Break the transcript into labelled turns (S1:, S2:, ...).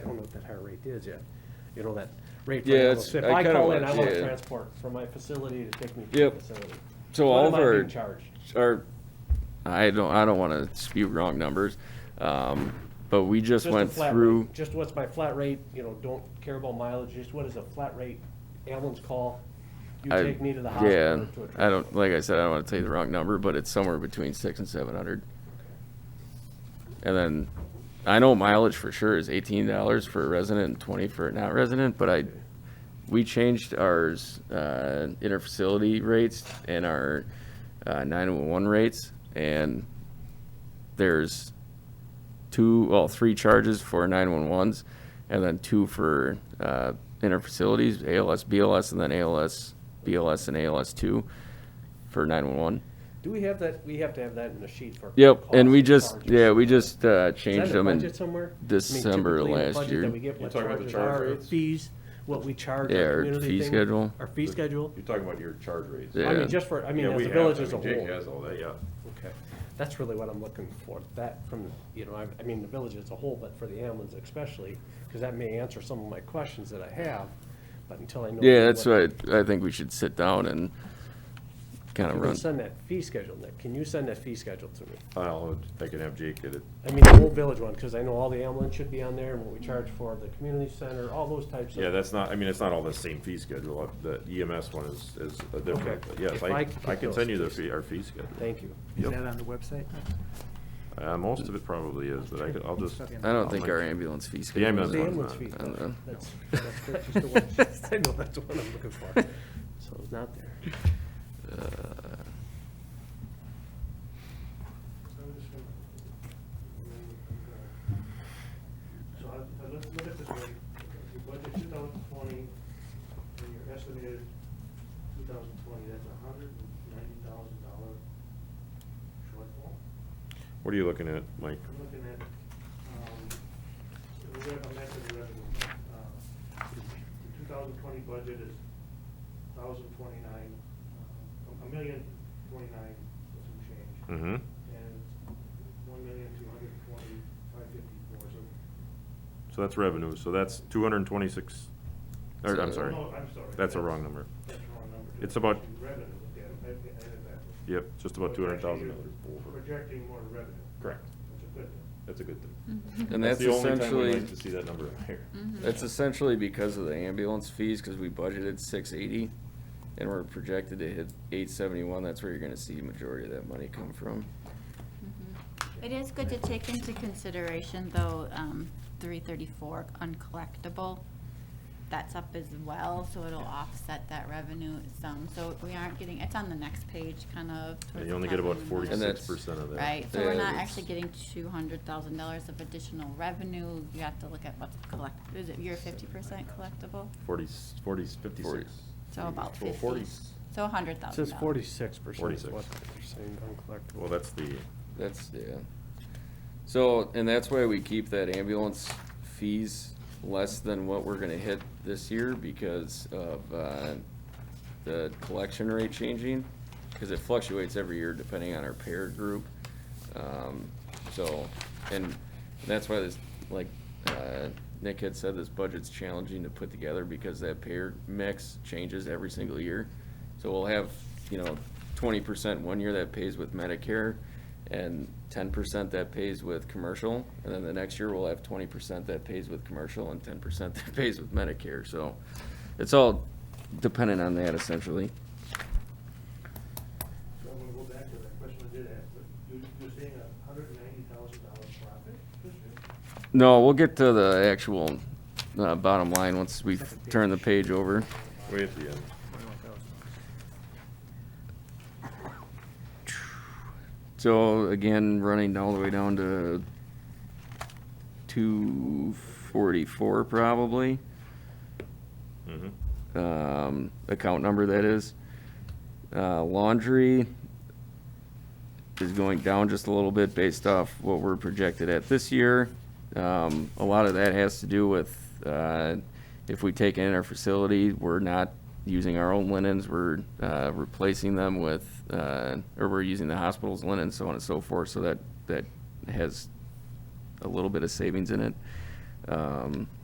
S1: higher rate is yet. You know, that rate. for
S2: Yeah,
S1: animals.
S2: it's-
S1: If
S2: I
S1: I
S2: kinda
S1: call
S2: want-
S1: in, I want
S2: yeah.
S1: to transport from my facility to take me to
S2: Yep.
S1: the facility.
S2: So
S1: What
S2: all
S1: am
S2: of
S1: I
S2: our,
S1: being charged?
S2: our, I don't, I don't wanna spew wrong numbers, um, but we
S1: Just
S2: just
S1: a
S2: went
S1: flat rate.
S2: through.
S1: Just what's my flat rate, you know, don't care about mileage, just what is a flat rate ambulance call? You
S2: I-
S1: take me to the hospital or to a.
S2: Yeah, I don't, like I said, I don't wanna tell you the wrong number, but it's somewhere between six and seven hundred. And then, I know mileage for sure is eighteen dollars for a resident and twenty for a not resident, but I, we changed ours, uh, interfacility rates and our, uh, nine-one-one rates, and there's two, well, three charges for nine-one-ones, and then two for, uh, interfacilities, ALS, BLS, and then ALS, BLS and ALS two for nine-one-one.
S1: Do we have that, we have to have that in the sheet for.
S2: Yep,
S1: costs
S2: and we just,
S1: charges.
S2: yeah, we just, uh,
S1: Is that
S2: changed
S1: in the
S2: them
S1: budget
S2: and,
S1: somewhere? I mean,
S2: December
S1: typically in the
S2: last
S1: budget
S2: year.
S1: That we get
S3: You're
S1: what
S3: talking about the
S1: charges
S3: charge
S1: are, our
S3: rates?
S1: fees, what we charge.
S2: yeah, our
S1: community
S2: fee
S1: thing,
S2: schedule.
S1: Our fee schedule.
S3: You're talking about your charge rates.
S1: I
S2: Yeah.
S1: mean, just for, I mean,
S3: Yeah,
S1: as
S3: we
S1: the
S3: have.
S1: village
S3: I
S1: as a
S3: mean, Jake
S1: whole.
S3: has all that, yeah.
S1: Okay, that's really what I'm looking for, that from, you know, I, I mean, the village as a whole, but for the ambulance especially, because that may answer some of my questions that I have, but until I know.
S2: Yeah, that's
S1: what-
S2: right. I think we should sit down and kind
S1: You
S2: of
S1: can
S2: run.
S1: send that fee schedule, Nick, can you send that fee schedule to me?
S3: I'll, I can have Jake get it.
S1: I mean, the whole village one, because I know all the ambulance should be on there, and what we charge for the community center, all those types of.
S3: Yeah, that's not, I mean, it's not all the same fee schedule. Uh, The EMS one is, is a different,
S1: Okay.
S3: but yes,
S1: If I
S3: I,
S1: could
S3: I
S1: get
S3: can
S1: those
S3: send you the
S1: fees.
S3: fee, our fee schedule.
S1: Thank you.
S4: Is
S3: Yep.
S4: that on the website?
S3: Uh, most of it probably is, but I could, I'll just,
S4: Stuff in
S2: I
S4: there.
S2: don't think our ambulance fee schedule.
S3: ambulance
S2: is
S1: The
S3: one's
S2: on-
S1: ambulance fee,
S3: not-
S2: I don't know.
S1: that's, that's correct, just the one, I know, that's the one I'm looking for, so it's not there.
S2: Uh,
S5: So I, I look, look at this rate, if you budget two thousand twenty, and your estimated two thousand twenty, that's a hundred and ninety thousand dollar shortfall.
S3: what are you looking at, Mike?
S5: I'm looking at, um, we have a method of revenue. Uh, The two thousand twenty budget is thousand twenty-nine, uh, a million twenty-nine, and some change.
S3: Mm-hmm.
S5: And one million two hundred twenty, five fifty-four, so
S3: So that's revenue, so that's two hundred and twenty-six, or, I'm
S2: So-
S3: sorry.
S5: No, I'm sorry.
S3: That's a wrong number.
S5: That's the wrong number.
S3: It's about-
S5: Revenue, yeah, I- I added that.
S3: Yep, just about
S5: So
S3: two hundred
S5: it's
S3: thousand
S5: actually
S3: dollars over.
S5: Projecting more revenue.
S3: Correct.
S5: That's a good thing.
S3: That's a good thing.
S6: Mm-hmm.
S2: And that's
S3: the only time we
S2: essentially,
S3: like To see that number higher.
S2: that's essentially because of the ambulance fees, because we budgeted six eighty and we're projected to hit eight seventy-one. That's where you're gonna see majority of that money come from.
S6: Mm-hmm. It is good to take into consideration, though, um, three thirty-four uncollectible, that's up as well, so it'll offset that revenue some, so we aren't getting, it's on the next page, kind of.
S3: And
S6: towards
S3: you only
S6: the
S3: get
S6: top
S3: about
S6: of the
S2: And
S3: forty-six
S2: that's-
S3: percent of that.
S6: Right, so we're
S2: Yeah,
S6: not
S2: that's-
S6: actually getting two hundred thousand dollars of additional revenue, you have to look at what's collect, is it your fifty percent collectible?
S3: Forty, forty, fifty-six.
S6: So about
S3: Well,
S6: fifty,
S3: forty-
S6: so a hundred thousand
S1: It
S6: dollars.
S1: says forty-six percent is
S3: 46.
S1: what they're saying uncollectible.
S3: Well, that's the,
S2: That's, yeah. So, and that's why we keep that ambulance fees less than what we're gonna hit this year because of, uh, the collection rate changing, cause it fluctuates every year depending on our payer group. Um, so, and that's why this, like, uh, Nick had said, this budget's challenging to put together because that payer mix changes every single year. So we'll have, you know, twenty percent one year that pays with Medicare and ten percent that pays with commercial. And then the next year we'll have twenty percent that pays with commercial and ten percent that pays with Medicare. So it's all dependent on that essentially.
S5: So I'm gonna go back to that question I did ask, but you, you're saying a hundred and ninety thousand dollar profit this year?
S2: No, we'll get to the actual, uh, bottom line once we turn the page over.
S3: way at the end.
S2: So again, running all the way down to two forty-four probably,
S3: Mm-hmm.
S2: um, account number that is. Uh, laundry is going down just a little bit based off what we're projected at this year. Um, a lot of that has to do with, uh, if we take in our facility, we're not using our own linens, we're, uh, replacing them with, uh, or we're using the hospital's linen, so on and so forth, so that, that has a little bit of savings in it. Um,